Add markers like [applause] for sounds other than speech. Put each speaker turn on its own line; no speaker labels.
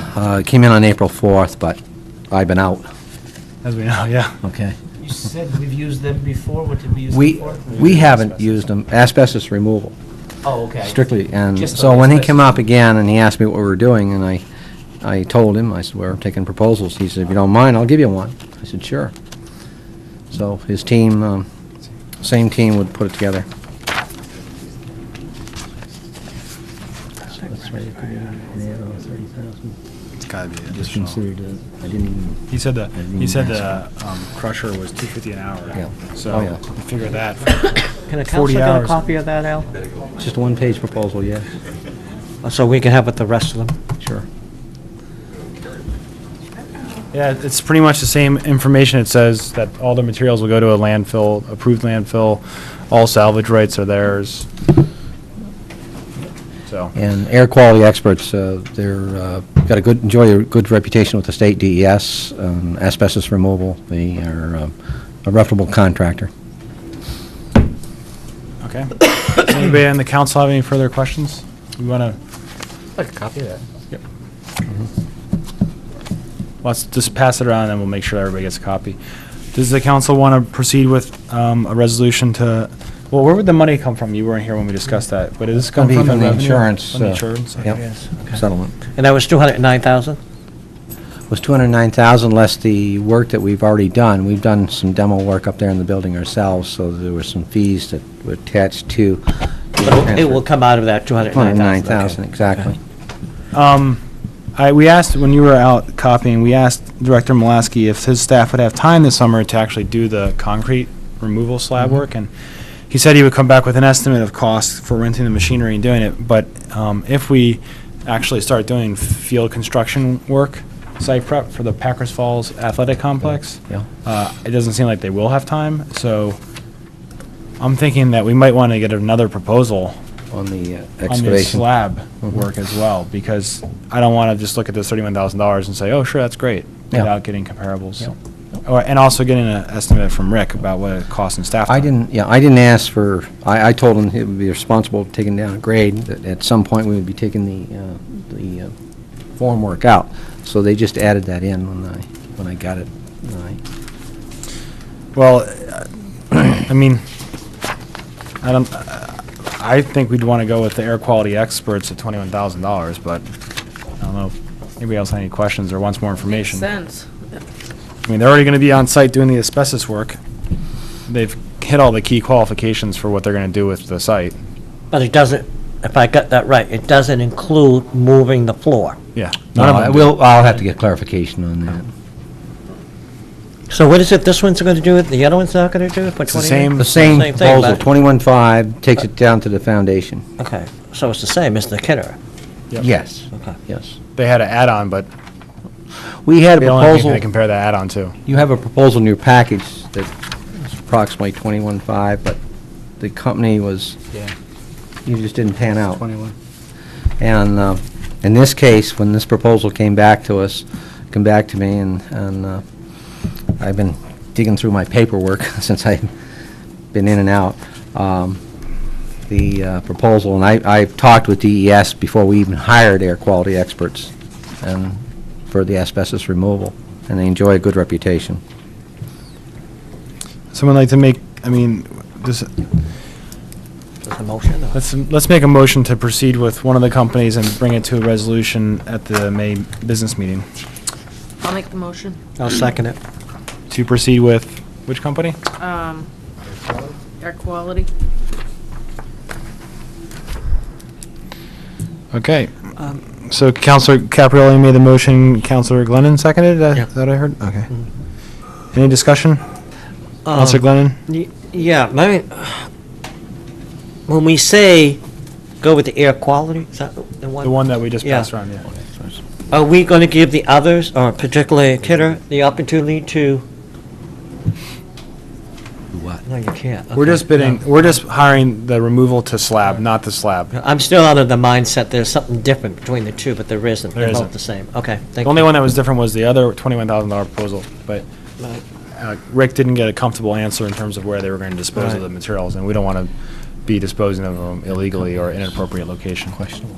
Uh, it Came in on April 4th, but I've been out,
As we know, yeah.
okay?
You said we've used them before, what did we use
We,
them for?
we haven't used them, asbestos removal,
Oh, okay.
strictly, and
Just
so when he came
asbestos.
up again and he asked me what we were doing, and I, I told him, I said, we're taking proposals, he said, if you don't mind, I'll give you one. I said, sure. So his team, um, same team would put it together.
It's gotta be
Just
additional.
considered, a- I didn't even,
He said the, he
mean,
said the
that's-
um, crusher was two fifty an hour.
Yeah.
So
Oh, yeah.
you figure that.
Can a
40
counselor get a
hours.
copy of that, Al?
Just a one-page proposal, yes,
Uh, So we can have with the rest of them?
sure.
Yeah, it's pretty much the same information. It says that all the materials will go to a landfill, approved landfill. All salvage rights are theirs. So.
And air quality experts, uh, they're, uh, got a good, enjoy a good reputation with the state DES, um, asbestos removal, they are um, a reputable contractor.
Okay. Does Anybody on the council have any further questions? We want to,
Like a copy of that.
Mm-hmm. let's just pass it around and we'll make sure everybody gets a copy. Does the council want to proceed with um, a resolution to, well, where would the money come from? You weren't here when we discussed that, but it is
Gonna
coming
be
from the
from the
revenue?
insurance,
From the
uh,
insurance?
yep.
okay.
Settlement.
And that was 209,000?
Was 209,000 less the work that we've already done. We've done some demo work up there in the building ourselves, so there were some fees that were attached to. the
But it will
transfer.
come out of that 209,000.
209,000,
okay.
exactly.
Um, I, we asked, when you were out copying, we asked Director Malasky if his staff would have time this summer to actually do the concrete removal slab
Mm-hmm.
work, and he said he would come back with an estimate of cost for renting the machinery and doing it, but, um, if we actually start doing field construction work, site prep for the Packers Falls Athletic Complex,
Yeah.
uh, it doesn't seem like they will have time, so I'm thinking that we might want to get another proposal
On the uh,
on the
excavation.
slab
Mhm.
work as well, because I don't want to just look at this thirty-one thousand dollars and say, oh, sure, that's great,
Yeah.
without getting comparables. Or, and also getting an estimate from Rick about what it costs in staff.
I
time.
didn't, yeah, I didn't ask for, I, I told him he would be responsible for taking down a grade, that at some point we would be taking the, uh, the uh, formwork out. So they just added that in when I, when I got it. when I-
Well, uh, [clears throat] I mean, I don't, I think we'd want to go with the air quality experts at twenty-one thousand dollars, but I don't know. if Anybody else had any questions or wants more information?
sense.
I mean, they're already going to be on site doing the asbestos work. They've hit all the key qualifications for what they're going to do with the site.
But it doesn't, if I got that right, it doesn't include moving the floor.
Yeah. Um,
No, I will, I'll have to get clarification on that.
So what is it, this one's going to do it, the other one's not going to do it for 20?
It's the same,
The same
Same thing,
proposal,
but-
twenty-one-five, takes it down to the foundation.
Okay, so it's the same as the Kidder.
Yep.
Yes,
Okay.
yes.
they had an add-on, but
We had a
they don't have anything
proposal,
to compare the add-on to.
you have a proposal in your package that's approximately twenty-one-five, but the company was,
Yeah.
you just didn't pan out.
Twenty-one.
And uh, in this case, when this proposal came back to us, come back to me, and, and uh, I've been digging through my paperwork [laughs] since I've been in and out, um, the uh, proposal, and I, I've talked with DES before we even hired air quality experts and for the asbestos removal, and they enjoy a good reputation.
Someone like to make, I mean, this,
There's a motion? or-
let's, let's make a motion to proceed with one of the companies and bring it to a resolution at the May business meeting.
I'll make the motion.
I'll second it.
To proceed with, which company?
Um, air quality.
Okay.
Um,
So Counselor Caprielli made the motion, Counselor Glennon seconded, uh,
Yeah. Mm-hmm.
that, that I heard? Okay. Any discussion? Counselor
Um,
Glennon?
Y- Yeah, I mean, when we say go with the air quality, is that the one?
The one that we just
Yeah.
passed around, yeah.
Are we going to give the others, or particularly Kidder, the opportunity to?
What?
No, you can't.
We're
Okay.
just bidding, we're just hiring the removal to slab, not the slab.
I'm still out of the mindset there's something different between the two, but there isn't.
There
They're both
isn't.
the same. Okay,
The
thank
only
you.
one that was different was the other twenty-one thousand dollar proposal, but uh, Rick didn't get a comfortable answer in terms of where they were going to dispose of
Right.
the materials, and we don't want to be disposing of them illegally or inappropriate location.
Questionable.